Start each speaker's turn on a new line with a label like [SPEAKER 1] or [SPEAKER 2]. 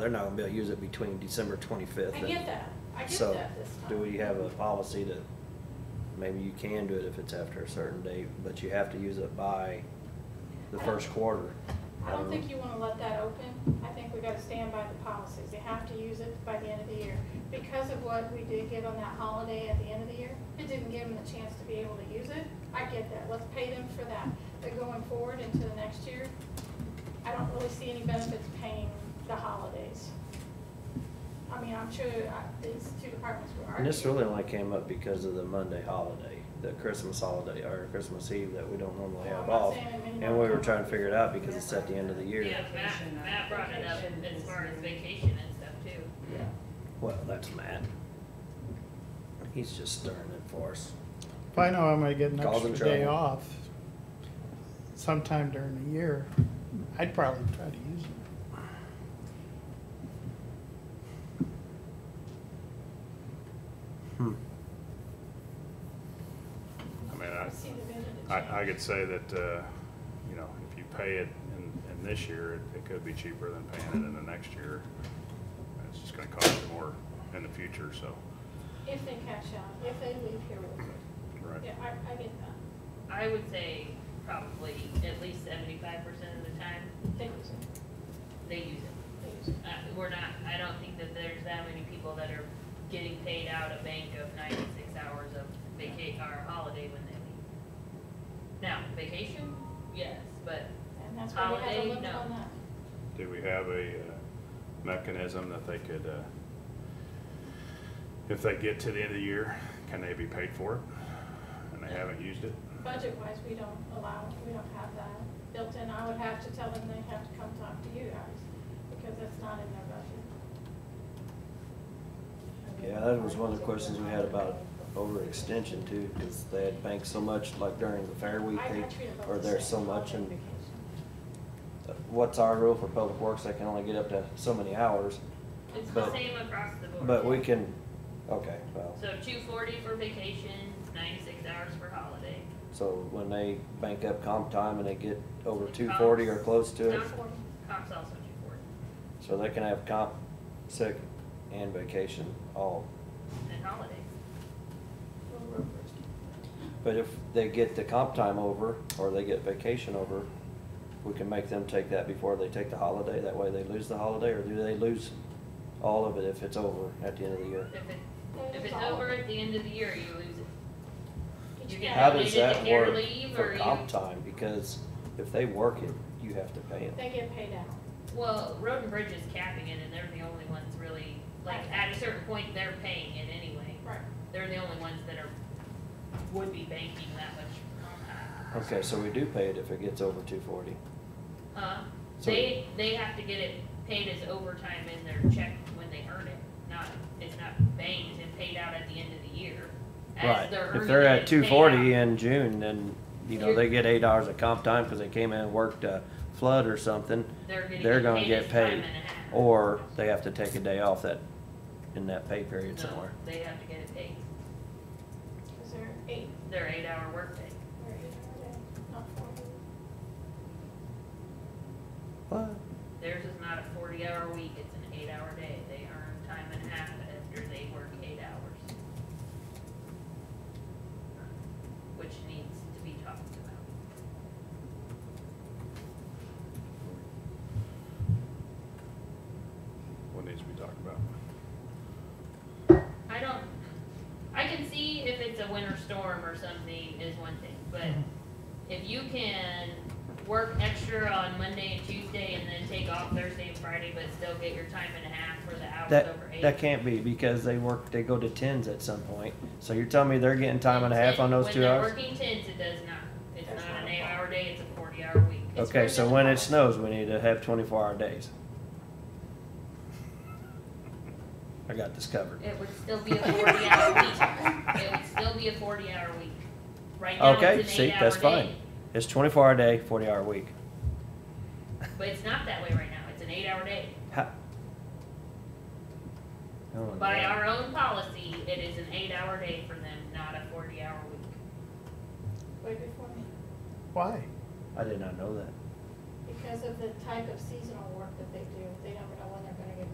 [SPEAKER 1] They're not gonna be able to use it between December twenty-fifth.
[SPEAKER 2] I get that, I get
[SPEAKER 1] So,
[SPEAKER 2] that this time.
[SPEAKER 1] do we have a policy that maybe you can do it if it's after a certain date, but you have to use it by the first quarter?
[SPEAKER 2] I don't think
[SPEAKER 1] know.
[SPEAKER 2] you wanna let that open. I think we gotta stand by the policies. They have to use it by the end of the year. Because of what we did give them that holiday at the end of the year, it didn't give them the chance to be able to use it. I get that. Let's pay them for that. But going forward into the next year, I don't really see any benefits paying the holidays. I mean, I'm sure uh, these two departments were
[SPEAKER 1] And
[SPEAKER 2] arguing.
[SPEAKER 1] this really only came up because of the Monday holiday, the Christmas holiday, or Christmas Eve that we don't normally
[SPEAKER 2] Well, I'm
[SPEAKER 1] have
[SPEAKER 2] not
[SPEAKER 1] off.
[SPEAKER 2] saying it may
[SPEAKER 1] And
[SPEAKER 2] not
[SPEAKER 1] we were
[SPEAKER 2] come
[SPEAKER 1] trying
[SPEAKER 2] up.
[SPEAKER 1] to figure it out because it's at the end of the year.
[SPEAKER 3] Yeah, Matt,
[SPEAKER 1] uh,
[SPEAKER 3] Matt brought it up
[SPEAKER 4] Vacation
[SPEAKER 3] as
[SPEAKER 4] is-
[SPEAKER 3] far as vacation and stuff too.
[SPEAKER 4] Yeah.
[SPEAKER 1] Well, that's Matt. He's just stirring it for us.
[SPEAKER 5] If I know I'm gonna get an
[SPEAKER 1] Cause and
[SPEAKER 5] extra day
[SPEAKER 1] trouble.
[SPEAKER 5] off sometime during the year, I'd probably try to use it.
[SPEAKER 6] I mean,
[SPEAKER 2] I
[SPEAKER 6] I,
[SPEAKER 2] see the vision.
[SPEAKER 6] I, I could say that, uh, you know, if you pay it in, in this year, it- it could be cheaper than paying it in the next year. And It's just gonna cost you more in the future, so,
[SPEAKER 2] If they catch on, if they leave here with it.
[SPEAKER 6] right?
[SPEAKER 2] Yeah, I, I get that.
[SPEAKER 3] I would say probably at least seventy-five percent of the time,
[SPEAKER 2] They use it,
[SPEAKER 3] they use it.
[SPEAKER 2] they use it.
[SPEAKER 3] Uh, we're not, I don't think that there's that many people that are getting paid out a bank of ninety-six hours of vaca, or holiday when they leave. Now, vacation, yes, but
[SPEAKER 2] And that's why we had
[SPEAKER 3] Holiday,
[SPEAKER 2] a limit
[SPEAKER 3] no.
[SPEAKER 2] on that.
[SPEAKER 6] Do we have a uh, mechanism that they could, uh, if they get to the end of the year, can they be paid for it? And they haven't used it?
[SPEAKER 2] Budget-wise, we don't allow, we don't have that built in. I would have to tell them they have to come talk to you guys, because that's not in their
[SPEAKER 1] Yeah,
[SPEAKER 2] budget.
[SPEAKER 1] that was one of the questions we had about overextension too, because they had banked so much, like during the fair week,
[SPEAKER 2] I- I
[SPEAKER 1] they,
[SPEAKER 2] treat it
[SPEAKER 1] or
[SPEAKER 2] both the
[SPEAKER 1] there's so
[SPEAKER 2] same,
[SPEAKER 1] much,
[SPEAKER 2] holiday
[SPEAKER 1] and
[SPEAKER 2] vacation.
[SPEAKER 1] what's our rule for public works, they can only get up to so many hours,
[SPEAKER 3] it's the
[SPEAKER 1] But-
[SPEAKER 3] same across the board.
[SPEAKER 1] but we can, okay, well,
[SPEAKER 3] So two forty for vacation, ninety-six hours for holiday.
[SPEAKER 1] so when they bank up comp time and they get over two forty or close to it,
[SPEAKER 3] Comp- Comp's also two forty,
[SPEAKER 1] so they can have comp, sick, and vacation all.
[SPEAKER 3] and holidays.
[SPEAKER 2] We'll work first.
[SPEAKER 1] But if they get the comp time over, or they get vacation over, we can make them take that before they take the holiday, that way they lose the holiday, or do they lose all of it if it's over at the end of the year?
[SPEAKER 3] If it,
[SPEAKER 2] They use
[SPEAKER 3] if it's
[SPEAKER 2] all of
[SPEAKER 3] over
[SPEAKER 2] it.
[SPEAKER 3] at the end of the year, you lose it.
[SPEAKER 2] Did
[SPEAKER 3] You
[SPEAKER 2] you
[SPEAKER 3] get
[SPEAKER 2] have-
[SPEAKER 1] How does
[SPEAKER 3] Yeah,
[SPEAKER 1] that
[SPEAKER 3] they did
[SPEAKER 1] work
[SPEAKER 3] the leave or
[SPEAKER 1] for
[SPEAKER 3] you-
[SPEAKER 1] comp time, because if they work it, you have to pay it.
[SPEAKER 2] They get paid out.
[SPEAKER 3] Well, Road and Bridge is capping it, and they're the only ones really, like, at a certain point, they're paying it anyway.
[SPEAKER 2] Right.
[SPEAKER 3] They're the only ones that are, would be banking that much.
[SPEAKER 1] Okay, so we do pay it if it gets over two forty,
[SPEAKER 3] Uh,
[SPEAKER 1] So-
[SPEAKER 3] they, they have to get it paid as overtime in their check when they earn it, not, it's not banked and paid out at the end of the year. As
[SPEAKER 1] right?
[SPEAKER 3] they're
[SPEAKER 1] If
[SPEAKER 3] earning
[SPEAKER 1] they're
[SPEAKER 3] it,
[SPEAKER 1] at
[SPEAKER 3] it's paid
[SPEAKER 1] two forty
[SPEAKER 3] out.
[SPEAKER 1] in June, then, you know,
[SPEAKER 3] You're-
[SPEAKER 1] they get eight hours of comp time, cause they came in and worked a flood or something,
[SPEAKER 3] They're getting
[SPEAKER 1] they're
[SPEAKER 3] it
[SPEAKER 1] gonna
[SPEAKER 3] paid
[SPEAKER 1] get
[SPEAKER 3] as time
[SPEAKER 1] paid,
[SPEAKER 3] and a half.
[SPEAKER 1] Or they have to take a day off that, in that pay period
[SPEAKER 3] No,
[SPEAKER 1] somewhere.
[SPEAKER 3] They have to get it paid,
[SPEAKER 2] Is there eight,
[SPEAKER 3] their eight-hour workday.
[SPEAKER 2] or eight hour day, not four?
[SPEAKER 1] What?
[SPEAKER 3] Theirs is not a forty-hour week, it's an eight-hour day. They earn time and a half after they work eight hours. Which needs to be talked about.
[SPEAKER 6] What needs to be talked about?
[SPEAKER 3] I don't, I can see if it's a winter storm or something is one thing, but
[SPEAKER 1] Mm-hmm.
[SPEAKER 3] if you can work extra on Monday and Tuesday and then take off Thursday and Friday, but still get your time and a half for the hours
[SPEAKER 1] That,
[SPEAKER 3] over eight.
[SPEAKER 1] that can't be because they work, they go to tens at some point. So you're telling me they're getting time and a half on those two hours?
[SPEAKER 3] When they're working tens, it does not, it's
[SPEAKER 2] That's
[SPEAKER 3] not an
[SPEAKER 2] not a
[SPEAKER 3] eight-hour day, it's a forty-hour week. It's
[SPEAKER 1] Okay, so
[SPEAKER 3] within
[SPEAKER 1] when
[SPEAKER 3] the
[SPEAKER 1] it snows, we need to have twenty-four hour days. I got this covered.
[SPEAKER 3] It would still be a forty hour week. It would still be a forty hour week. Right now,
[SPEAKER 1] Okay,
[SPEAKER 3] it's an
[SPEAKER 1] see,
[SPEAKER 3] eight hour
[SPEAKER 1] that's fine.
[SPEAKER 3] day,
[SPEAKER 1] It's twenty-four hour day, forty hour week.
[SPEAKER 3] but it's not that way right now. It's an eight hour day.
[SPEAKER 1] Ha- Oh,
[SPEAKER 3] By
[SPEAKER 1] yeah.
[SPEAKER 3] our own policy, it is an eight hour day for them, not a forty hour week.
[SPEAKER 2] Way before me,
[SPEAKER 5] Why?
[SPEAKER 1] I did not know that.
[SPEAKER 2] because of the type of seasonal work that they do, they never know when they're gonna get